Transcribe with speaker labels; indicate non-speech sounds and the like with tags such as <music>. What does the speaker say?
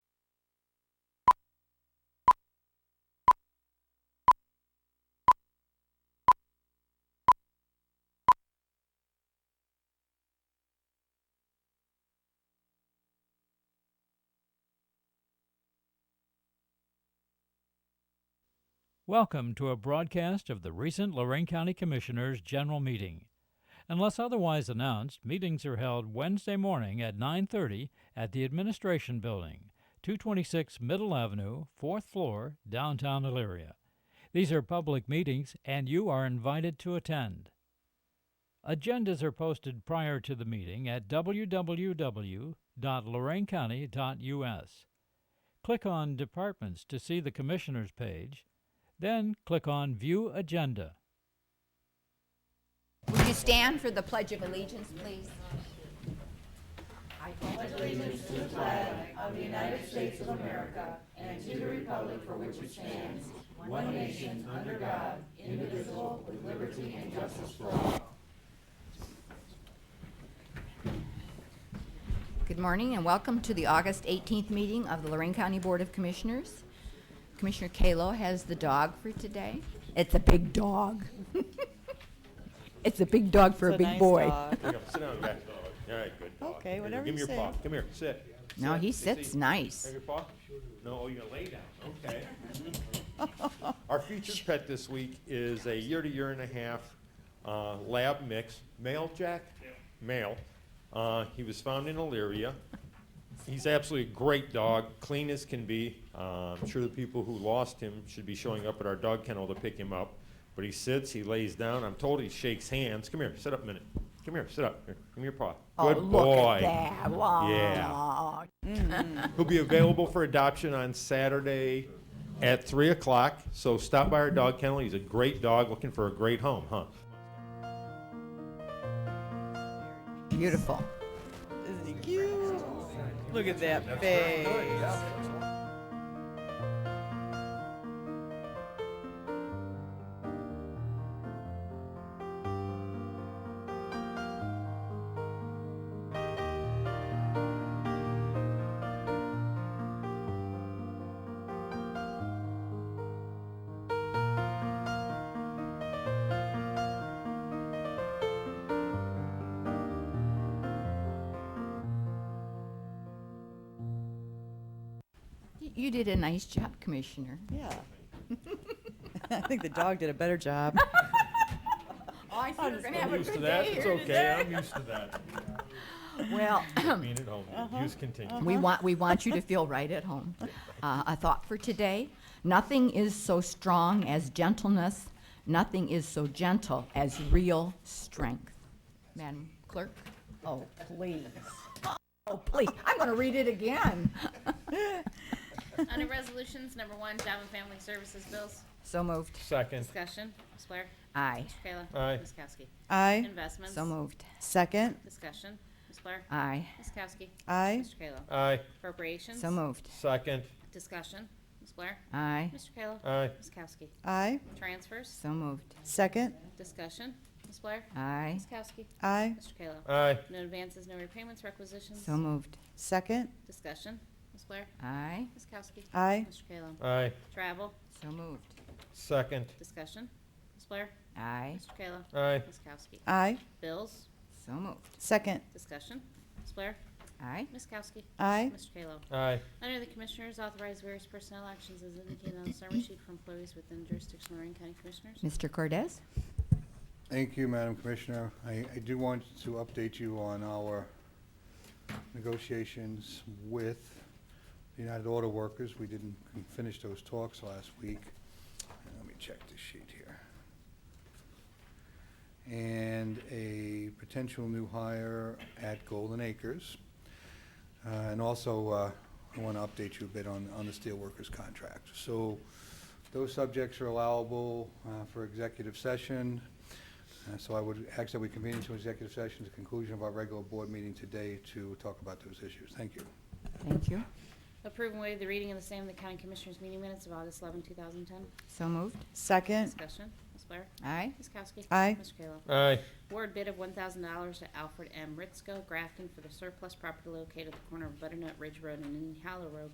Speaker 1: Welcome to a broadcast of the recent Lorraine County Commissioners' General Meeting. Unless otherwise announced, meetings are held Wednesday morning at 9:30 at the Administration Building, 226 Middle Avenue, 4th floor, downtown Elyria. These are public meetings and you are invited to attend. Agendas are posted prior to the meeting at www.loraincounty.us. Click on Departments to see the Commissioners page, then click on View Agenda.
Speaker 2: Would you stand for the Pledge of Allegiance, please? Good morning and welcome to the August 18th meeting of the Lorraine County Board of Commissioners. Commissioner Kalo has the dog for today. It's a big dog. It's a big dog for a big boy.
Speaker 3: Here you go. Sit down, guy. All right, good dog.
Speaker 4: Okay,
Speaker 3: Here you go.
Speaker 4: whatever you
Speaker 3: Give me
Speaker 4: say.
Speaker 3: your paw. Come here, sit.
Speaker 2: No,
Speaker 3: Sit.
Speaker 2: he
Speaker 3: Sit,
Speaker 2: sits
Speaker 3: sit. Have
Speaker 2: nice.
Speaker 3: your paw? No, oh, you're gonna lay down, okay.
Speaker 2: <laughs>
Speaker 3: Our featured pet this week is a year to year and a half uh, lab mix, male Jack? Male. Uh, He was found in Elyria. He's absolutely a great dog, clean as can be. Uh, I'm sure the people who lost him should be showing up at our dog kennel to pick him up. But he sits, he lays down. I'm told he shakes hands. Come here, sit up a minute. Come here, sit up. Here, give me your paw.
Speaker 2: Oh,
Speaker 3: Good
Speaker 2: look
Speaker 3: boy.
Speaker 2: at that. Wow.
Speaker 3: He'll be available for adoption on Saturday at 3 o'clock. So stop by our dog kennel. He's a great dog looking for a great home, huh?
Speaker 2: Beautiful.
Speaker 4: Isn't he cute? Look at that face.
Speaker 2: Y- You did a nice job, Commissioner.
Speaker 4: Yeah. <laughs> I think the dog did a better job.
Speaker 2: Oh, I see we're going to have a
Speaker 3: used to
Speaker 2: good
Speaker 3: that.
Speaker 2: day
Speaker 3: It's
Speaker 2: here
Speaker 3: okay. I'm used to that.
Speaker 2: <laughs> today. Well, <clears throat>
Speaker 3: Being at home,
Speaker 2: Uh-huh.
Speaker 3: use continue.
Speaker 2: We want, we want you to feel right at home. Uh, a thought for today Nothing is so strong as gentleness, nothing is so gentle as real strength. Madam Clerk? Oh, please. Oh, please. I'm going to read it again.
Speaker 5: Under Resolutions Number One, Job and Family Services Bills,
Speaker 2: So moved.
Speaker 3: Second.
Speaker 5: discussion, Ms. Blair,
Speaker 2: Aye.
Speaker 5: Mr. Kayla.
Speaker 3: Aye.
Speaker 5: Ms. Kowski.
Speaker 4: I
Speaker 5: Investments,
Speaker 2: So moved.
Speaker 4: second.
Speaker 5: discussion, Ms. Blair,
Speaker 2: Aye.
Speaker 5: Ms. Kowski.
Speaker 4: I
Speaker 5: Mr. Kayla.
Speaker 3: Aye.
Speaker 5: Appropriations,
Speaker 2: So moved.
Speaker 3: Second.
Speaker 5: discussion, Ms. Blair,
Speaker 2: Aye.
Speaker 5: Mr. Kayla.
Speaker 3: Aye.
Speaker 5: Ms. Kowski.
Speaker 4: I
Speaker 5: Transfers,
Speaker 2: So moved.
Speaker 4: second.
Speaker 5: discussion, Ms. Blair,
Speaker 2: Aye.
Speaker 5: Ms. Kowski.
Speaker 4: I
Speaker 5: Mr. Kayla.
Speaker 3: Aye.
Speaker 5: No advances, no repayments, requisitions,
Speaker 2: So moved.
Speaker 4: second.
Speaker 5: discussion, Ms. Blair,
Speaker 2: Aye.
Speaker 5: Ms. Kowski.
Speaker 4: I
Speaker 5: Mr. Kayla.
Speaker 3: Aye.
Speaker 5: Travel,
Speaker 2: So moved.
Speaker 3: Second.
Speaker 5: discussion, Ms. Blair,
Speaker 2: Aye.
Speaker 5: Mr. Kayla.
Speaker 3: Aye.
Speaker 5: Ms. Kowski.
Speaker 4: I
Speaker 5: Bills,
Speaker 2: So moved.
Speaker 4: second.
Speaker 5: discussion, Ms. Blair,
Speaker 2: Aye.
Speaker 5: Ms. Kowski.
Speaker 4: I
Speaker 5: Mr. Kalo.
Speaker 3: Aye.
Speaker 5: Under the Commissioners, authorize various personnel actions as indicated on the summary sheet for employees within jurisdiction of Lorraine County Commissioners.
Speaker 2: Mr. Cordez?
Speaker 6: Thank you, Madam Commissioner. I, I do want to update you on our negotiations with the United Auto Workers. We didn't finish those talks last week. Let me check this sheet here. And a potential new hire at Golden Acres. Uh, And also, uh, I want to update you a bit on, on the steelworkers contract. So those subjects are allowable uh, for executive session. Uh, So I would ask that we convene into executive session at the conclusion of our regular board meeting today to talk about those issues. Thank you.
Speaker 2: Thank you.
Speaker 5: Approve and waive the reading of the same in the County Commissioners meeting minutes of August 11, 2010.
Speaker 2: So moved.
Speaker 4: second.
Speaker 5: Discussion, Ms. Blair.
Speaker 2: Aye.
Speaker 5: Ms. Kowski.
Speaker 4: Mm. Aye.
Speaker 5: Mr. Kayla.
Speaker 3: Aye.
Speaker 5: Award bid of $1,000 to Alfred M. Ritzko, Grafton, for the surplus property located at the corner of Butternut Ridge Road and Indian Hollow Road,